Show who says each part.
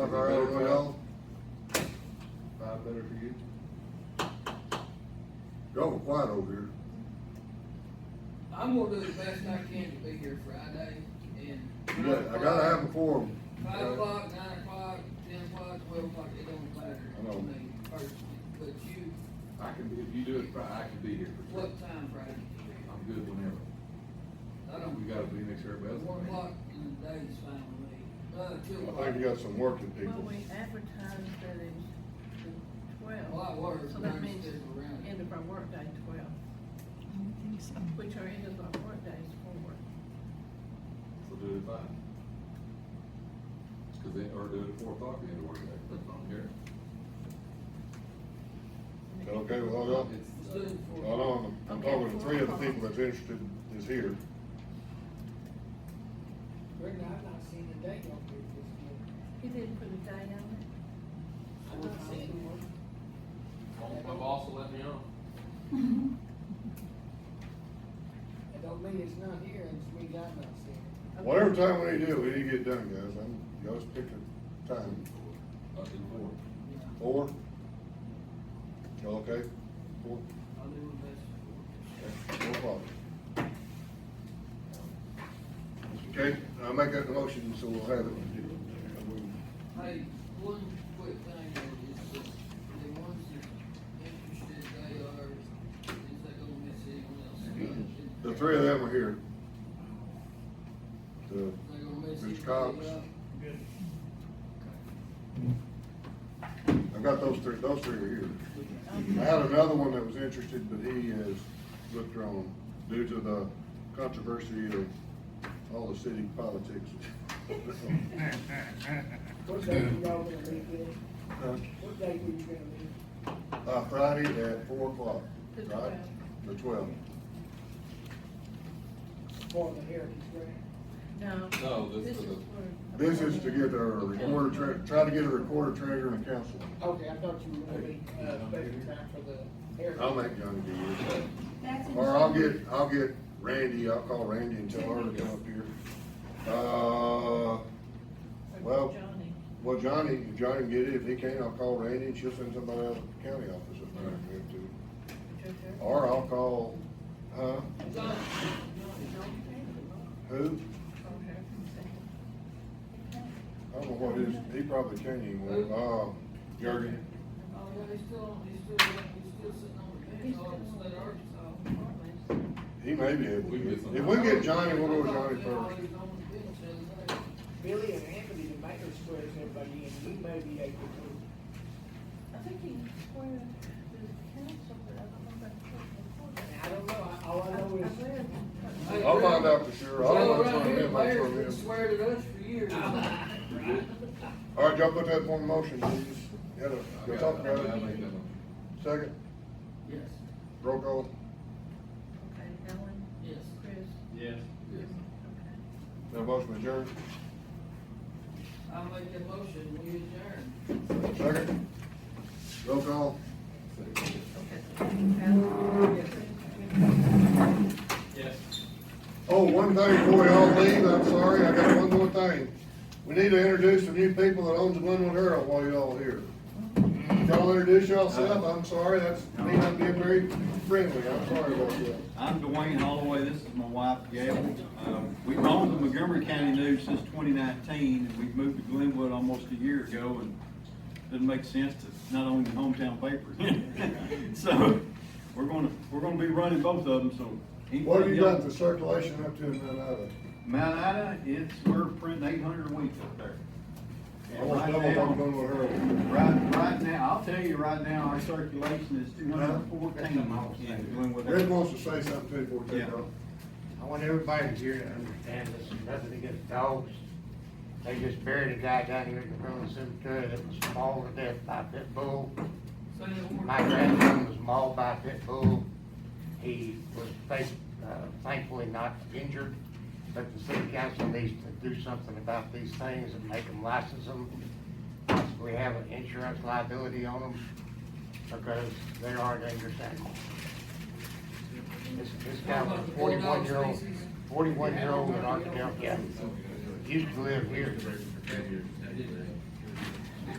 Speaker 1: of our own well.
Speaker 2: Five better for you.
Speaker 1: Y'all were quiet over here.
Speaker 3: I'm gonna do the best I can to be here Friday and.
Speaker 1: Yeah, I gotta have a forum.
Speaker 3: Five o'clock, nine o'clock, ten o'clock, twelve o'clock, it don't matter
Speaker 1: I know.
Speaker 3: to me personally, but you,
Speaker 2: I can, be if you do it Friday, I can be here for sure.
Speaker 3: what time Friday?
Speaker 2: I'm good whenever.
Speaker 3: I
Speaker 2: We
Speaker 3: don't,
Speaker 2: gotta be next to everybody else.
Speaker 3: one o'clock in the day is fine with me, uh, two
Speaker 1: I
Speaker 3: o'clock.
Speaker 1: think you got some working
Speaker 4: Well,
Speaker 1: people.
Speaker 4: we advertised that it's the
Speaker 3: A lot
Speaker 4: twelve,
Speaker 3: worse
Speaker 4: so
Speaker 3: than I
Speaker 4: that means
Speaker 3: said around.
Speaker 4: end of our workday twelve,
Speaker 5: I don't think so.
Speaker 4: which our end of our workdays
Speaker 2: So
Speaker 4: four.
Speaker 2: do it at five. Cause then, or do it at four o'clock, then work day, that's not here.
Speaker 1: Is that okay with all y'all?
Speaker 3: Let's do it for.
Speaker 1: Hold on, I'm talking to three of the people that's interested is here.
Speaker 6: Brenda, I've not seen a day on here this year.
Speaker 4: He did put a day on it.
Speaker 6: I've not seen one.
Speaker 7: My boss will let me on.
Speaker 6: It don't mean it's not here, it just means I've not seen it.
Speaker 1: Whatever time we need to do, we need to get it done, guys. I'm, y'all just pick a time.
Speaker 2: Up to Uh, four.
Speaker 1: Four? Y'all okay? Four?
Speaker 3: I'll do my best
Speaker 1: Okay, No problem. Okay, I'll make that motion, so we'll have it.
Speaker 3: Hey, one quick thing, though, is that the ones that interested, they are, is they gonna miss anyone else?
Speaker 1: The three of them are here. The
Speaker 3: They gonna miss
Speaker 1: Mr.
Speaker 3: anybody
Speaker 1: Cox.
Speaker 3: else?
Speaker 1: I got those three, those three are here. I had another one that was interested, but he has withdrawn due to the controversy of all the city politics.
Speaker 6: What day you all gonna be here?
Speaker 1: Uh,
Speaker 6: What day were you gonna be?
Speaker 1: Uh, Friday at four o'clock,
Speaker 4: The
Speaker 1: right?
Speaker 4: 12.
Speaker 1: The twelve.
Speaker 6: For the heritage grant?
Speaker 4: No.
Speaker 7: No, this
Speaker 4: This
Speaker 7: is
Speaker 4: is
Speaker 7: a-
Speaker 4: for.
Speaker 1: This is to get our recorder, tre- try to get a recorder treasurer and council.
Speaker 6: Okay, I thought you were gonna be, uh, special time for the heritage.
Speaker 1: I'll make Johnny do it. Or I'll get, I'll get Randy, I'll call Randy and tell her to come up here. Uh,
Speaker 4: for
Speaker 1: well-
Speaker 4: Johnny.
Speaker 1: well, Johnny, if Johnny can get it, if he can't, I'll call Randy and she'll send somebody out to the county office up there and get to. Or I'll call, huh,
Speaker 3: John,
Speaker 1: who? I don't know what his, he probably can't anymore, uh, Jurgen.
Speaker 3: oh, yeah, he's still, on- he's still, he's still sitting on the bench, all state Arkansas.
Speaker 1: He may be able to.
Speaker 2: We can get
Speaker 1: If
Speaker 2: some-
Speaker 1: we get Johnny, we'll go with
Speaker 3: I
Speaker 1: Johnny
Speaker 3: thought
Speaker 1: first.
Speaker 3: he was on the bench the other day.
Speaker 6: Billy and Anthony, the mayor squares everybody in, we may be able to.
Speaker 4: I think he squared the council, but I don't know about the
Speaker 6: And I don't know, I- all I know
Speaker 4: court.
Speaker 6: is,
Speaker 4: I
Speaker 3: Hey,
Speaker 4: read.
Speaker 1: I'll
Speaker 3: Brenda,
Speaker 1: find out for sure. I don't want
Speaker 3: Well,
Speaker 1: to
Speaker 3: around
Speaker 1: turn
Speaker 3: here,
Speaker 1: him, I turn
Speaker 3: mayors
Speaker 1: him.
Speaker 3: swear at us for years.
Speaker 1: All right, y'all put that one in motion, please. Yeah,
Speaker 2: I
Speaker 1: Y'all
Speaker 2: got-
Speaker 1: talk
Speaker 2: I
Speaker 1: about
Speaker 2: make
Speaker 1: it.
Speaker 2: that one.
Speaker 1: Second,
Speaker 3: Yes,
Speaker 1: roll call.
Speaker 4: Okay, Ellen,
Speaker 3: yes.
Speaker 4: Chris,
Speaker 7: Yes. Yes.
Speaker 4: okay.
Speaker 1: That motion adjourned.
Speaker 3: I'll make the motion, we adjourn.
Speaker 1: Second, roll call.
Speaker 7: Yes.
Speaker 1: Oh, one thing before y'all leave, I'm sorry, I got one more thing. We need to introduce the new people that owns Glenwood Herald while y'all are here. Y'all introduce yourself, I'm sorry, that's me not being very friendly, I'm sorry about that.
Speaker 8: I'm Dwayne Holloway, this is my wife Gail. Um, We've owned the Montgomery County News since 2019, and we've moved to Glenwood almost a year ago, and doesn't make sense to not own your hometown paper. So, we're gonna, we're gonna be running both of them, so.
Speaker 1: What have you got the circulation up to in Manada?
Speaker 8: Mount Ida, it's, we're printing 800 a week up there.
Speaker 1: I want to double
Speaker 8: And right now-
Speaker 1: talk on the Herald.
Speaker 8: Right, right now, I'll tell you right now, our circulation is 214 in Glenwood.
Speaker 1: Rick wants to say something too, before we take
Speaker 8: Yeah.
Speaker 1: off.
Speaker 9: I want everybody here to understand this, is nothing against dogs. They just buried a guy down here in the front of the cemetery that was mauled to death by a pit bull.
Speaker 3: Say it one more
Speaker 9: My grandson was mauled by a pit bull. He was thank- uh, thankfully not injured, but the city council needs to do something about these things and make them license them. Possibly have an insurance liability on them because they are dangerous animals. This, this guy was a forty-one year old, forty-one year old in Arkansas, County. Used to live here.